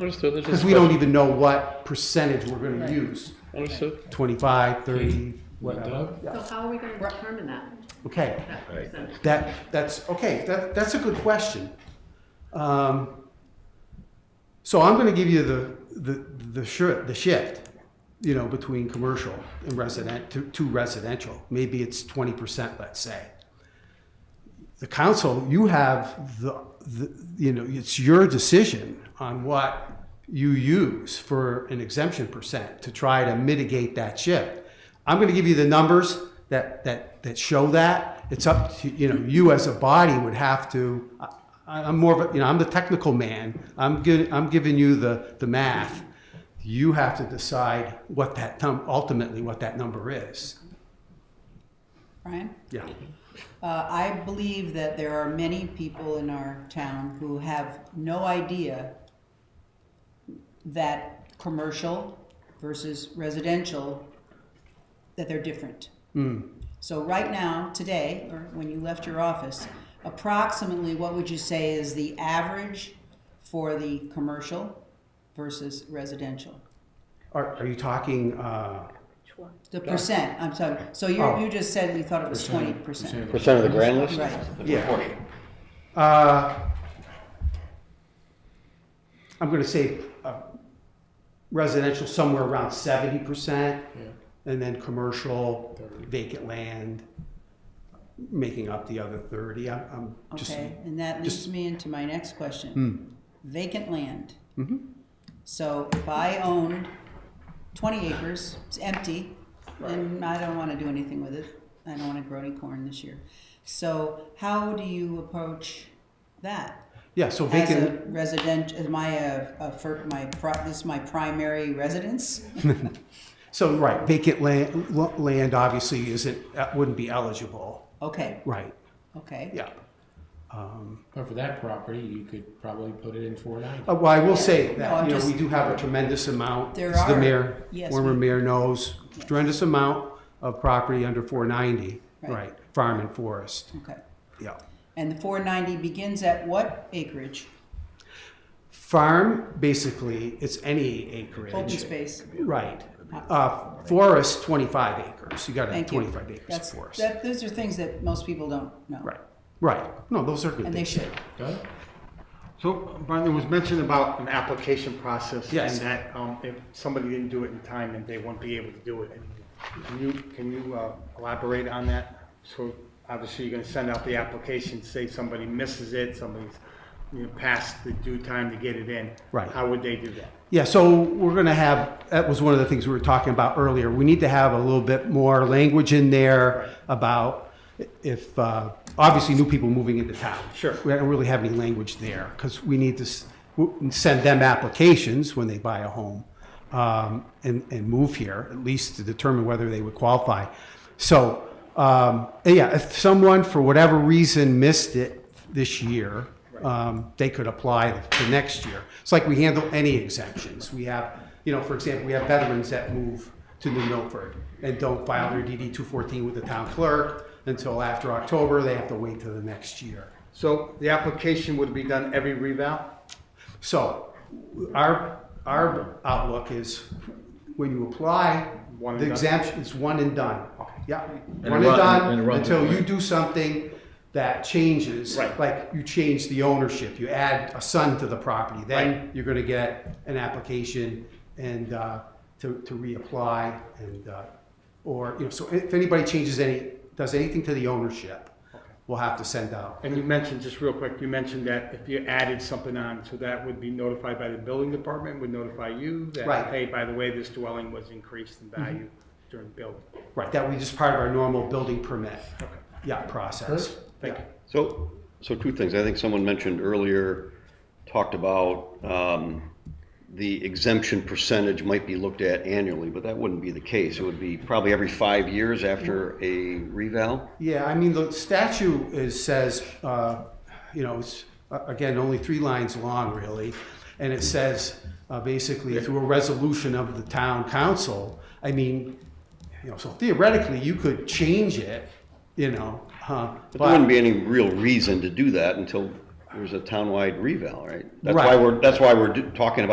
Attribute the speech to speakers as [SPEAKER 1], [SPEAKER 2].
[SPEAKER 1] Understood. There's just
[SPEAKER 2] Because we don't
[SPEAKER 1] question.
[SPEAKER 2] even know what percentage we're going
[SPEAKER 3] Right.
[SPEAKER 2] to use,
[SPEAKER 1] Understood.
[SPEAKER 2] 25, 30, whatever.
[SPEAKER 4] Doug?
[SPEAKER 2] Yeah.
[SPEAKER 5] So how are we gonna
[SPEAKER 3] Right.
[SPEAKER 5] determine that,
[SPEAKER 2] Okay,
[SPEAKER 5] that
[SPEAKER 4] Right.
[SPEAKER 5] percentage?
[SPEAKER 2] that, that's, okay, that, that's a good question. Um, So I'm going to give you the, the, the shift, the shift, you know, between commercial and resident, to, to residential. Maybe it's 20%, let's say. the council, you have the, the, you know, it's your decision on what you use for an exemption percent to try to mitigate that shift. I'm gonna give you the numbers that, that, that show that. It's up to, you know, you as a body would have to, I, I'm more of a, you know, I'm the technical man. I'm giving, I'm giving you the, the math. You have to decide what that, num- ultimately what that number is.
[SPEAKER 3] Brian?
[SPEAKER 2] Yeah.
[SPEAKER 3] Uh, I believe that there are many people in our town who have no idea that commercial versus residential, that they're different. So right now, today, or when you left your office, approximately what would you say is the average for the commercial versus residential?
[SPEAKER 2] Are, are you talking, uh,
[SPEAKER 3] The percent, I'm sorry, so you,
[SPEAKER 2] Oh.
[SPEAKER 3] you just said you thought it was twenty percent,
[SPEAKER 1] Percent of the grand list?
[SPEAKER 3] right?
[SPEAKER 2] yeah. Uh, I'm going to say uh, residential somewhere around seventy percent, and then commercial vacant land making up the other thirty. I'm, I'm just
[SPEAKER 3] Okay, and that leads
[SPEAKER 2] just- Hmm.
[SPEAKER 3] me into my next question. Vacant land.
[SPEAKER 2] Mm-hmm.
[SPEAKER 3] So if I owned twenty acres, it's empty, and I don't wanna do anything with it, I don't wanna grow any corn this year. So how do you approach that?
[SPEAKER 2] yeah. So
[SPEAKER 3] As
[SPEAKER 2] vacant.
[SPEAKER 3] a resident, is my, uh, uh, for my, pri- this is my primary residence?
[SPEAKER 2] so right, vacant land lo- land obviously isn't that wouldn't be eligible.
[SPEAKER 3] Okay,
[SPEAKER 2] Right.
[SPEAKER 3] okay.
[SPEAKER 2] Yeah.
[SPEAKER 4] But for that property, you could probably put it in four ninety.
[SPEAKER 2] Uh, Well, I will say
[SPEAKER 3] No,
[SPEAKER 2] that,
[SPEAKER 3] I'm
[SPEAKER 2] you know,
[SPEAKER 3] just-
[SPEAKER 2] we do have a tremendous amount.
[SPEAKER 3] There
[SPEAKER 2] as The
[SPEAKER 3] are.
[SPEAKER 2] mayor,
[SPEAKER 3] Yes,
[SPEAKER 2] former
[SPEAKER 3] we-
[SPEAKER 2] mayor knows, tremendous amount of property under four ninety,
[SPEAKER 3] Right.
[SPEAKER 2] right, farm and forest,
[SPEAKER 3] Okay,
[SPEAKER 2] yeah.
[SPEAKER 3] and the four ninety begins at what acreage?
[SPEAKER 2] Farm, basically, it's any acreage.
[SPEAKER 3] Open space?
[SPEAKER 2] Right. Uh, forest, twenty-five acres, you gotta have
[SPEAKER 3] Thank you.
[SPEAKER 2] twenty-five acres of
[SPEAKER 3] That's-
[SPEAKER 2] forest.
[SPEAKER 3] that- those are things that most people don't know.
[SPEAKER 2] Right, right, no, those are good
[SPEAKER 3] And they
[SPEAKER 2] things.
[SPEAKER 3] should.
[SPEAKER 4] Doug?
[SPEAKER 6] So, Brian, there was mention about an application process.
[SPEAKER 2] Yes.
[SPEAKER 6] And that um, if somebody didn't do it in time, then they won't be able to do it. Can you, can you uh, elaborate on that? So obviously, you're going to send out the application, say somebody misses it, somebody's, you know, past the due time to get it in.
[SPEAKER 2] Right.
[SPEAKER 6] How would they do that?
[SPEAKER 2] Yeah, so we're gonna have, that was one of the things we were talking about earlier. We need to have a little bit more language in there about if, uh, obviously new people moving into town.
[SPEAKER 6] Sure.
[SPEAKER 2] We don't really have any language there, because we need to s- w- send them applications when they buy a home um, and, and move here, at least to determine whether they would qualify. So, um, and yeah, if someone for whatever reason missed it this year, um, they could apply the next year. It's like we handle any exemptions. We have, you know, for example, we have veterans that move to New Milford and don't file their DD 214 with the town clerk until after October. They have to wait till the next year.
[SPEAKER 6] So the application would be done every revow?
[SPEAKER 2] So our, our outlook is when you apply,
[SPEAKER 6] One and
[SPEAKER 2] the
[SPEAKER 6] done.
[SPEAKER 2] exemption is one and done. Yeah,
[SPEAKER 7] And
[SPEAKER 2] one and
[SPEAKER 7] run-
[SPEAKER 2] done
[SPEAKER 7] and run the
[SPEAKER 2] until you
[SPEAKER 7] plan.
[SPEAKER 2] do something that changes.
[SPEAKER 6] Right.
[SPEAKER 2] Like you change the ownership, you add a son to the property, then you're gonna get an application and, uh, to, to reapply and, uh, or, you know, so if anybody changes any, does anything to the ownership, we'll have to send out.
[SPEAKER 6] And you mentioned, just real quick, you mentioned that if you added something on, so that would be notified by the building department, would notify you
[SPEAKER 2] Right.
[SPEAKER 6] that, hey, by the way, this dwelling was increased in value during building.
[SPEAKER 2] Right, that would be just part of our normal building permit, yeah, process.
[SPEAKER 6] Thank you.
[SPEAKER 8] So, so two things. I think someone mentioned earlier, talked about um, the exemption percentage might be looked at annually, but that wouldn't be the case. It would be probably every five years after a reval.
[SPEAKER 2] Yeah, I mean, the statute is, says, uh, you know, it's, uh, again, only three lines long, really. And it says, uh, basically, through a resolution of the town council, I mean, you know, so theoretically, you could change it, you know, huh?
[SPEAKER 8] But there wouldn't be any real reason to do that until there's a townwide reval, right? That's why
[SPEAKER 2] Right.
[SPEAKER 8] we're, that's why we're do- talking about